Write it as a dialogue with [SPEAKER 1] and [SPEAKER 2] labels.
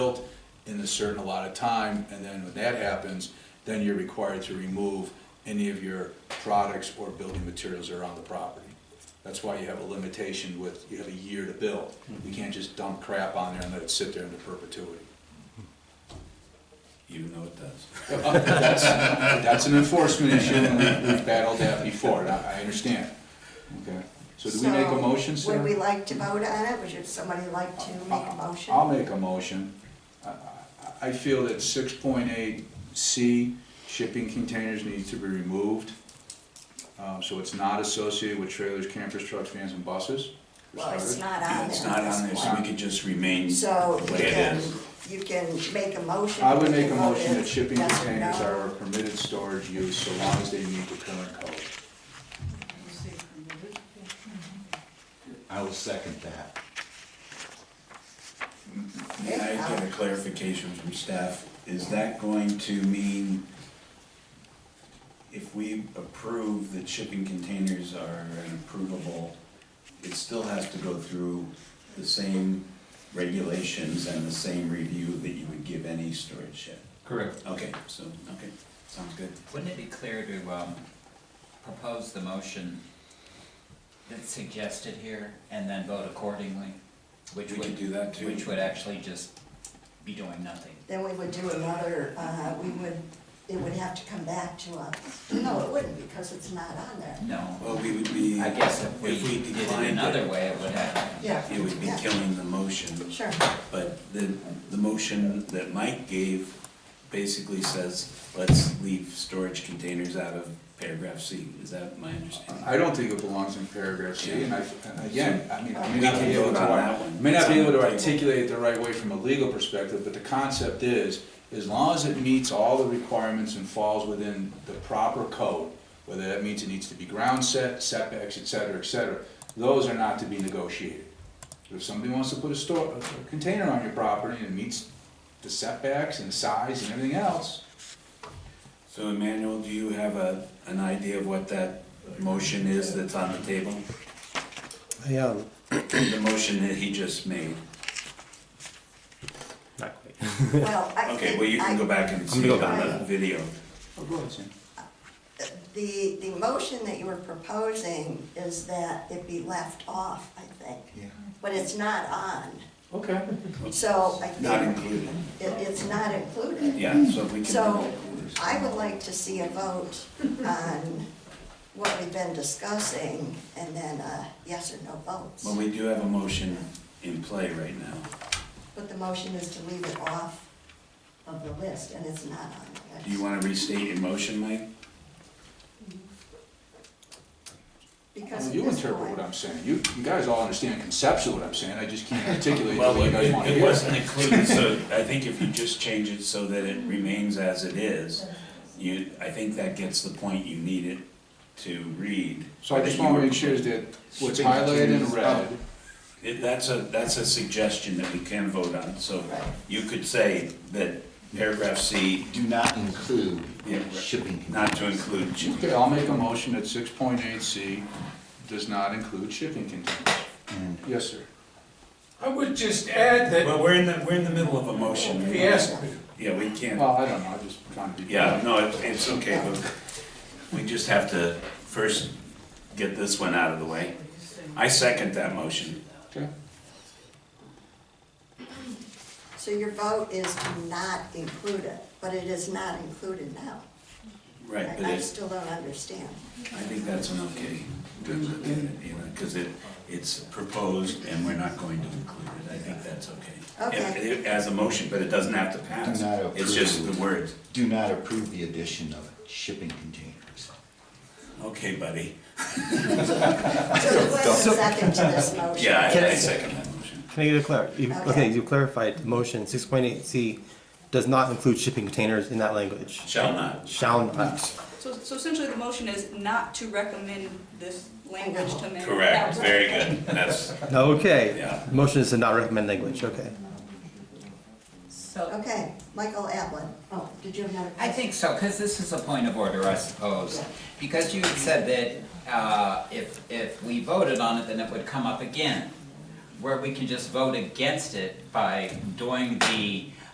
[SPEAKER 1] built in a certain allotted time, and then when that happens, then you're required to remove any of your products or building materials that are on the property. That's why you have a limitation with, you have a year to build. You can't just dump crap on there and let it sit there into perpetuity.
[SPEAKER 2] Even though it does.
[SPEAKER 1] That's, that's an enforcement issue, and we- we've battled that before, and I, I understand. Okay, so do we make a motion,
[SPEAKER 3] So, Would
[SPEAKER 1] Sarah?
[SPEAKER 3] we like to vote on it? Would you- somebody like to make a motion?
[SPEAKER 1] I'll make a motion. I- I, I feel that six point eight C, shipping containers needs to be removed. Um, so it's not associated with trailers, campers, trucks, vans, and buses. for
[SPEAKER 3] Well, it's
[SPEAKER 1] starters.
[SPEAKER 3] not on there.
[SPEAKER 2] It's not on there, so we could just remain
[SPEAKER 3] So
[SPEAKER 2] the
[SPEAKER 3] you
[SPEAKER 2] way it
[SPEAKER 3] can,
[SPEAKER 2] is.
[SPEAKER 3] you can make a motion.
[SPEAKER 1] I would
[SPEAKER 3] we
[SPEAKER 1] make a
[SPEAKER 3] can vote
[SPEAKER 1] motion that
[SPEAKER 3] it
[SPEAKER 1] shipping
[SPEAKER 3] yes or
[SPEAKER 1] containers
[SPEAKER 3] no.
[SPEAKER 1] are a permitted storage use so long as they meet the current code.
[SPEAKER 4] I will second that.
[SPEAKER 2] May I get a clarification from staff? Is that going to mean if we approve that shipping containers are an approvable, it still has to go through the same regulations and the same review that you would give any storage shed?
[SPEAKER 5] Correct.
[SPEAKER 2] Okay, so, okay, sounds good.
[SPEAKER 5] Wouldn't it be clear to um, propose the motion that's suggested here and then vote accordingly? Which
[SPEAKER 2] We
[SPEAKER 5] would
[SPEAKER 2] could do that too.
[SPEAKER 5] Which would actually just be doing nothing.
[SPEAKER 3] Then we would do another, uh, we would, it would have to come back to us. No, it wouldn't because it's not on there.
[SPEAKER 2] Well,
[SPEAKER 5] No,
[SPEAKER 2] we would be.
[SPEAKER 5] I guess if we did it
[SPEAKER 2] declined
[SPEAKER 5] another way, it would happen.
[SPEAKER 3] Yeah.
[SPEAKER 2] It would be
[SPEAKER 3] yeah,
[SPEAKER 2] killing the motion.
[SPEAKER 3] Sure.
[SPEAKER 2] But the, the motion that Mike gave basically says, let's leave storage containers out of paragraph C. Is that my understanding?
[SPEAKER 1] I don't think it belongs in paragraph C, and I, and again, I mean, I may
[SPEAKER 2] We
[SPEAKER 1] not
[SPEAKER 2] can
[SPEAKER 1] be able
[SPEAKER 2] vote
[SPEAKER 1] to,
[SPEAKER 2] on
[SPEAKER 1] ar-
[SPEAKER 2] that one.
[SPEAKER 1] may not be able to
[SPEAKER 2] It's on the table.
[SPEAKER 1] articulate it the right way from a legal perspective, but the concept is, as long as it meets all the requirements and falls within the proper code, whether that means it needs to be ground set, setbacks, et cetera, et cetera, those are not to be negotiated. If somebody wants to put a store, a container on your property and it meets the setbacks and size and everything else,
[SPEAKER 2] So Emmanuel, do you have a, an idea of what that motion is that's on the table?
[SPEAKER 6] I um,
[SPEAKER 2] The motion that he just made.
[SPEAKER 6] not quite.
[SPEAKER 3] Well, I
[SPEAKER 2] Okay,
[SPEAKER 3] think
[SPEAKER 2] well, you
[SPEAKER 3] I-
[SPEAKER 2] can go back and see
[SPEAKER 6] go
[SPEAKER 2] it on
[SPEAKER 3] back.
[SPEAKER 2] the video.
[SPEAKER 1] oh, go ahead, Sam.
[SPEAKER 3] The, the motion that you were proposing is that it be left off, I think.
[SPEAKER 4] Yeah.
[SPEAKER 3] But it's not on.
[SPEAKER 1] Okay.
[SPEAKER 3] So I think.
[SPEAKER 2] Not included.
[SPEAKER 3] It, it's not included.
[SPEAKER 2] Yeah, so if we can.
[SPEAKER 3] So I would like to see a vote on what we've been discussing and then a yes or no votes.
[SPEAKER 2] Well, we do have a motion in play right now.
[SPEAKER 3] But the motion is to leave it off of the list and it's not on the
[SPEAKER 2] Do you
[SPEAKER 3] list.
[SPEAKER 2] want to restate your motion, Mike?
[SPEAKER 3] Because
[SPEAKER 1] Well,
[SPEAKER 3] at
[SPEAKER 1] You
[SPEAKER 3] this
[SPEAKER 1] interpret
[SPEAKER 3] point-
[SPEAKER 1] what I'm saying. You, you guys all understand conceptually what I'm saying. I just can't articulate the
[SPEAKER 2] Well,
[SPEAKER 1] way you
[SPEAKER 2] it,
[SPEAKER 1] guys want to
[SPEAKER 2] it
[SPEAKER 1] hear.
[SPEAKER 2] wasn't
[SPEAKER 1] it.
[SPEAKER 2] included, so I think if you just change it so that it remains as it is, you, I think that gets the point you need it to read.
[SPEAKER 1] So I just want to make sure that what's highlighted in
[SPEAKER 2] um,
[SPEAKER 1] red,
[SPEAKER 2] It, that's a, that's a suggestion that we can vote on, so
[SPEAKER 3] Right.
[SPEAKER 2] you could say that paragraph C,
[SPEAKER 4] Do not include
[SPEAKER 2] Yeah, right.
[SPEAKER 4] shipping
[SPEAKER 2] not
[SPEAKER 4] containers.
[SPEAKER 2] to include shipping.
[SPEAKER 1] okay, I'll make a motion that six point eight C does not include shipping containers.
[SPEAKER 4] And
[SPEAKER 1] Yes, sir.
[SPEAKER 7] I would just add that,
[SPEAKER 2] Well, we're in the, we're in the middle of a motion.
[SPEAKER 7] he asked me,
[SPEAKER 2] Yeah, we can't.
[SPEAKER 1] Well, I don't know, I'm just trying to be.
[SPEAKER 2] Yeah, no, it- it's okay, but we just have to first get this one out of the way. I second that motion.
[SPEAKER 1] Okay.
[SPEAKER 3] So your vote is to not include it, but it is not included now.
[SPEAKER 2] Right, but
[SPEAKER 3] I I
[SPEAKER 2] it,
[SPEAKER 3] still don't understand.
[SPEAKER 2] I think that's an okay, because it, it's proposed and we're not going to include it. I think that's okay. If-
[SPEAKER 3] Okay.
[SPEAKER 2] if- As a motion, but it doesn't have to pass.
[SPEAKER 4] Do not
[SPEAKER 2] It's just the
[SPEAKER 4] approve.
[SPEAKER 2] words.
[SPEAKER 4] do not approve the addition of shipping containers.
[SPEAKER 2] Okay, buddy.
[SPEAKER 3] So who has a second to this motion?
[SPEAKER 2] Yeah, I- I second that motion.
[SPEAKER 6] Can I get a clar? you-
[SPEAKER 3] Okay.
[SPEAKER 6] Okay, you clarified the motion. Six point eight C does not include shipping containers in that language.
[SPEAKER 2] Shall not.
[SPEAKER 6] Shall not.
[SPEAKER 8] So, so essentially, the motion is not to recommend this language to men.
[SPEAKER 2] Correct, very good. That's,
[SPEAKER 6] Okay.
[SPEAKER 2] Yeah.
[SPEAKER 6] Motion is to not recommend language. Okay.
[SPEAKER 5] So,
[SPEAKER 3] Okay, Michael Atlin. Oh, did you have another
[SPEAKER 5] I
[SPEAKER 3] question?
[SPEAKER 5] think so, because this is a point of order, I suppose. Because you had said that uh, if, if we voted on it, then it would come up again. where we can just vote against it by doing the